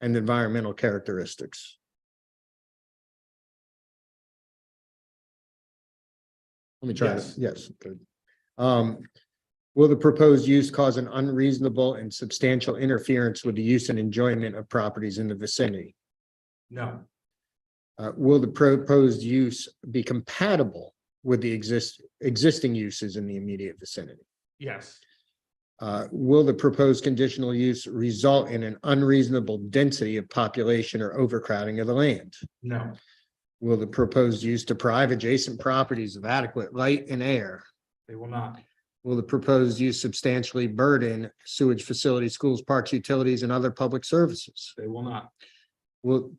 and environmental characteristics. Let me try this, yes. good. Um, will the proposed use cause an unreasonable and substantial interference with the use and enjoyment of properties in the vicinity? No, Uh, will the proposed use be compatible with the exist, existing uses in the immediate vicinity? yes, Uh, will the proposed conditional use result in an unreasonable density of population or overcrowding of the land? no, Will the proposed use deprive adjacent properties of adequate light and air? they will not. Will the proposed use substantially burden sewage facilities, schools, parks, utilities, and other public services? They will not. Will,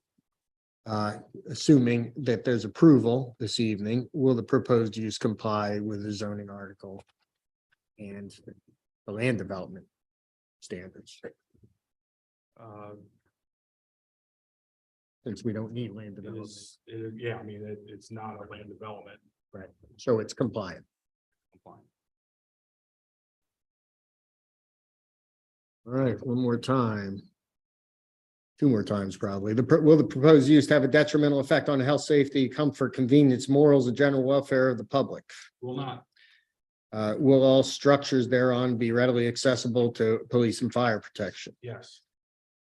uh, assuming that there's approval this evening, will the proposed use comply with the zoning article and the land development standards, Uh, since we don't need land it development? is, it is- yeah, I mean, it, it's not a land development. So it's compliant. compliant. All right, one more time. Two more times probably. The, pro- will the proposed use have a detrimental effect on health, safety, comfort, convenience, morals, and general welfare of the public? Will not, Uh, will all structures thereon be readily accessible to police and fire protection? yes,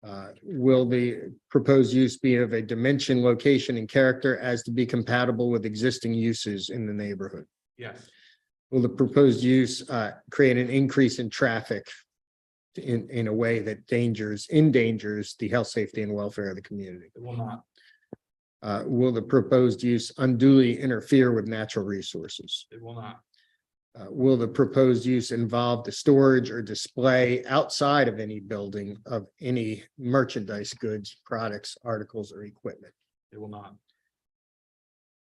Uh, will the proposed use be of a dimension, location, and character as to be compatible with existing uses in the neighborhood? yes, Will the proposed use uh, create an increase in traffic in, in a way that dangers, endangers the health, safety, and welfare of the community? it will not, Uh, Will the proposed use unduly interfere with natural resources? it will not, Uh, Will the proposed use involve the storage or display outside of any building of any merchandise, goods, products, articles, or equipment? it will not,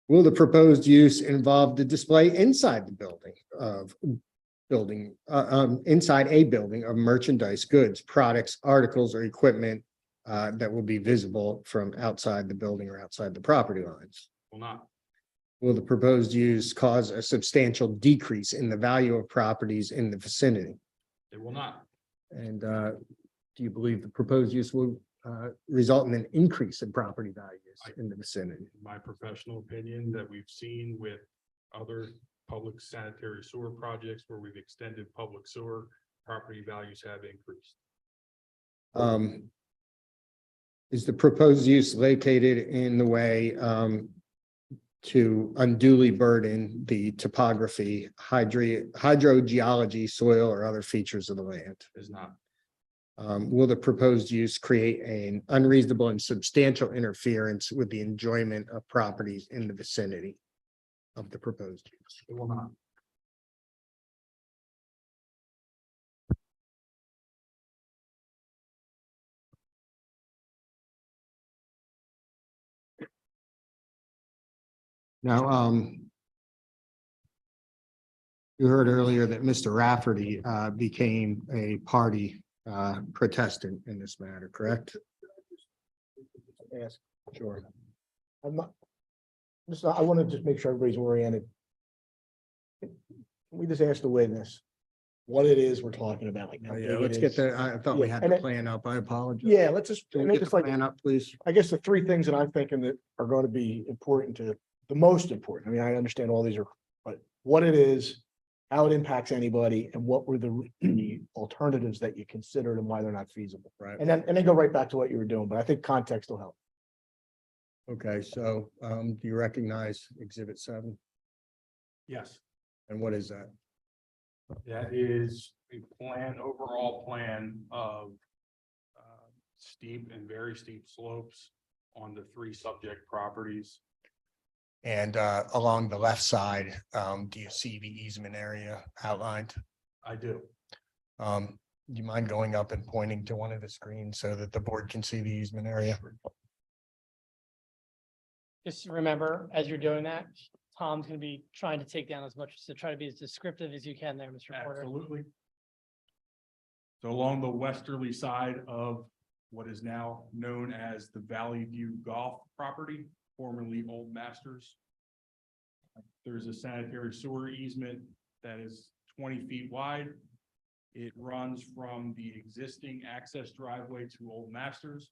Will the proposed use involve the display inside the building of building, uh, um, inside a building of merchandise, goods, products, articles, or equipment uh, that will be visible from outside the building or outside the property lines? will not, Will the proposed use cause a substantial decrease in the value of properties in the vicinity? it will not, And uh, do you believe the proposed use will uh, result in an increase in property values in the vicinity? in my professional opinion, that we've seen with other public sanitary sewer projects where we've extended public sewer, property values have increased. Um. Is the proposed use located in the way um. To unduly burden the topography, hydri- hydrogeology, soil or other features of the land? Is not, Um, will the proposed use create an unreasonable and substantial interference with the enjoyment of properties in the vicinity? Of the proposed use? it will not, Now, um. You heard earlier that Mr. Rafferty uh became a party uh protestant in this matter, correct? ask. Sure. I'm not, just, I want to just make sure everybody's oriented. We just ask the witness what it is we're talking about like now. Oh, Yeah, let's get the, I thought we had Yeah, the and plan up. I apologize. Yeah, let's just, Can and we get it's the just like, plan up, please? I guess the three things that I'm thinking that are going to be important to, the most important. I mean, I understand all these are, but what it is, how it impacts anybody and what were the the alternatives that you considered and why they're not feasible. Right. And then, and then go right back to what you were doing, but I think context will help. Okay, so um do you recognize exhibit seven? yes. And what is that? That is a plan, overall plan of uh, steep and very steep slopes on the three subject properties. And uh, along the left side, um, do you see the easement area outlined? I do. Um, do you mind going up and pointing to one of the screens so that the board can see the easement area? just remember, as you're doing that, Tom's gonna be trying to take down as much, so try to be as descriptive as you can there, Mr. Porter. Absolutely. So along the westerly side of what is now known as the Valley View Golf property, formerly Old Masters. There's a sanitary sewer easement that is twenty feet wide. It runs from the existing access driveway to Old Masters